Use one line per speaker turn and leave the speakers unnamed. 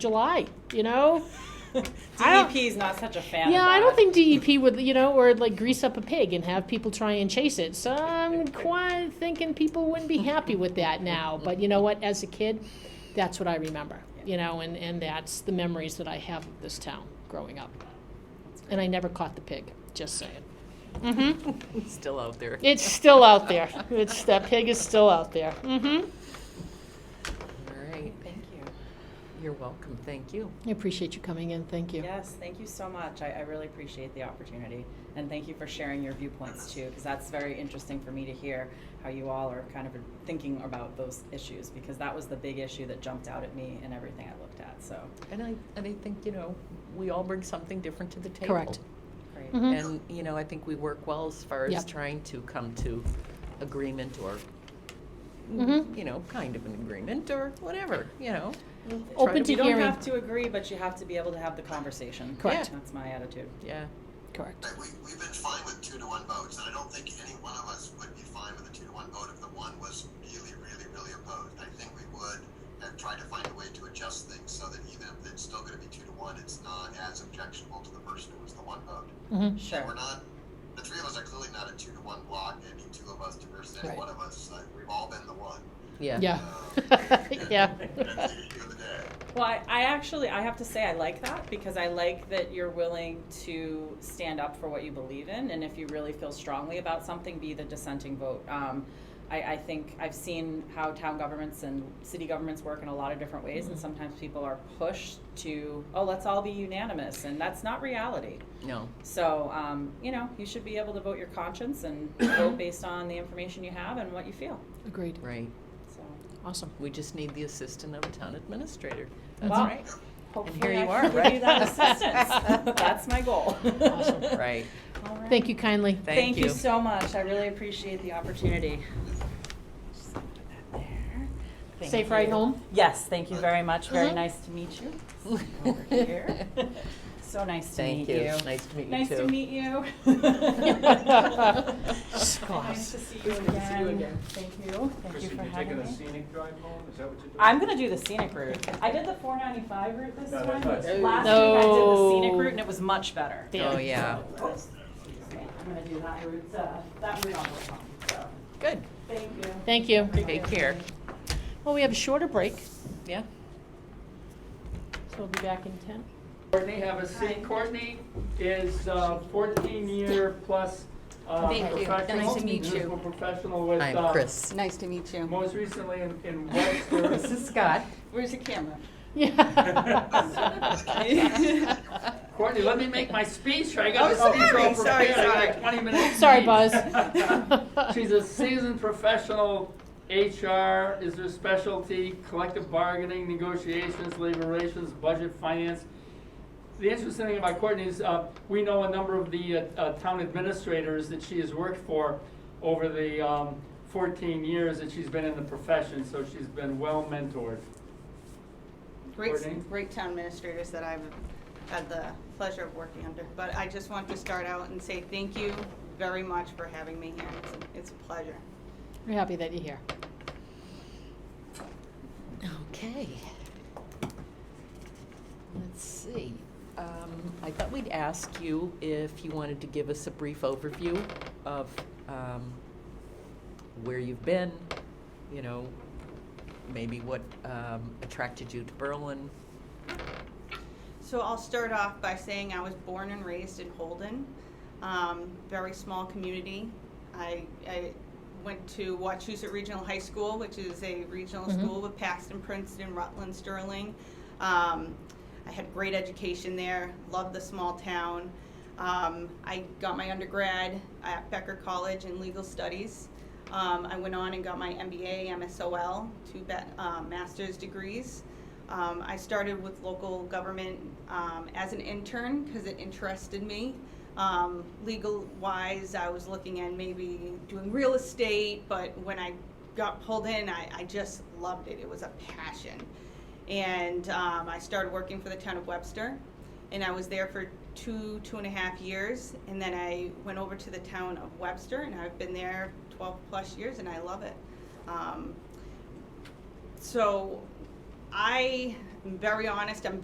July, you know? I don't-
DEP is not such a fan.
Yeah,
of
I
that.
don't think DEP would, you know, or like grease up a pig and have people try and chase it. So I'm quite thinking people wouldn't be happy with that now. But you know what? As a kid, that's what I remember, you know, and, and that's the memories that I have of this town growing up. And I never caught the pig, just saying. Mm-hmm.
Still out there.
It's still out there. It's, that pig is still out there. Mm-hmm.
All right,
Thank you.
you're welcome, thank you.
I appreciate you coming in. Thank you.
Yes, thank you so much. I, I really appreciate the opportunity. And thank you for sharing your viewpoints too, because that's very interesting for me to hear how you all are kind of thinking about those issues, because that was the big issue that jumped out at me in everything I looked at. So,
And I, and I think, you know, we all bring something different to the table.
Correct.
great.
Mhm.
And, you know, I think we work well as far as
Yep.
trying to come to agreement or,
Mhm.
you know, kind of an agreement or whatever, you know. We'll try
Open
be-
You
to
don't
hearing.
have to agree, but you have to be able to have the conversation.
Correct.
Yeah.
That's my attitude.
Yeah,
Correct.
Like we, we've been fine with two to one votes, and I don't think any one of us would be fine with a two to one vote if the one was really, really, really opposed. I think we would have tried to find a way to adjust things so that even if it's still going to be two to one, it's not as objectionable to the person who was the one vote.
Mm-hmm.
Sure.
We're not. The three of us are clearly not a two to one block. Any two of us to versus any
Right.
one of us. Uh, we've all been the one.
yeah.
Yeah. yeah.
That's the issue of the day.
Well, I, I actually, I have to say, I like that because I like that you're willing to stand up for what you believe in, and if you really feel strongly about something, be the dissenting vote. Um, I, I think I've seen how town governments and city governments work in a lot of different ways, and sometimes people are pushed to, oh, let's all be unanimous, and that's not reality.
No,
So, um, you know, you should be able to vote your conscience and vote based on the information you have and what you feel.
Agreed.
right.
So,
Awesome.
We just need the assistant of a town administrator. That's
Wow.
right.
hopefully,
here you
I
are,
can give
right?
you that assistance. that's my goal.
Awesome.
Right.
All right.
Thank you kindly.
Thank you.
so much. I really appreciate the opportunity. Just put that there. Thank
Safe ride
you.
home?
Yes, thank you very much. Very
Mhm.
nice to meet you. Over here. So nice to
Thank
meet
you.
you.
Nice to meet you
Nice to
too.
meet you. Nice to see you again. Thank you. Thank you
Chrissy,
for
you taking
having
a
me.
scenic drive home? Is that what you're doing?
I'm gonna do the scenic route. I did the four ninety-five route this
No,
time.
that's nice.
Last week I did the scenic
No.
route and it was much better.
Oh, yeah.
I'm gonna do that route, uh, that route on the way home, so,
Good.
thank you.
Thank you.
Take care.
Well, we have a shorter break,
Yeah.
so we'll be back in ten.
Courtney, have a seat. Courtney is uh, 14 year plus uh,
Thank you.
professional.
Nice to meet you.
municipal professional with,
I'm
uh,
Chris.
Nice to meet you.
Most recently in- in Webster.
is Scott.
Where's the camera?
Yeah.
Courtney, let me make my speech. I got
Oh,
the speech
sorry,
all
sorry,
prepared. I
sorry.
got 20 minutes.
Sorry,
speech.
Buzz.
She's a seasoned professional. HR is her specialty, collective bargaining, negotiations, labor relations, budget, finance. The interesting thing about Courtney is, uh, we know a number of the, uh, uh, town administrators that she has worked for over the, um, fourteen years that she's been in the profession, so she's been well mentored. Courtney?
Great, great town administrators that I've had the pleasure of working under. But I just want to start out and say thank you very much for having me here. It's- It's a pleasure.
We're happy that you're here.
Okay. Let's see. Um, I thought we'd ask you if you wanted to give us a brief overview of um, where you've been, you know, maybe what um, attracted you to Berlin.
So I'll start off by saying I was born and raised in Holden, um, very small community. I, I went to Wachusett Regional High School, which is a regional
Mhm.
school with Paxton, Princeton, Rutland, Sterling. Um, I had great education there, loved the small town. Um, I got my undergrad at Becker College in legal studies. Um, I went on and got my MBA, MSOL, two be- uh, master's degrees. Um, I started with local government um, as an intern because it interested me. Um, legal wise, I was looking at maybe doing real estate, but when I got pulled in, I, I just loved it. It was a passion. And um, I started working for the town of Webster, and I was there for two, two and a half years. And then I went over to the town of Webster, and I've been there 12 plus years, and I love it. Um, so I am very honest, I'm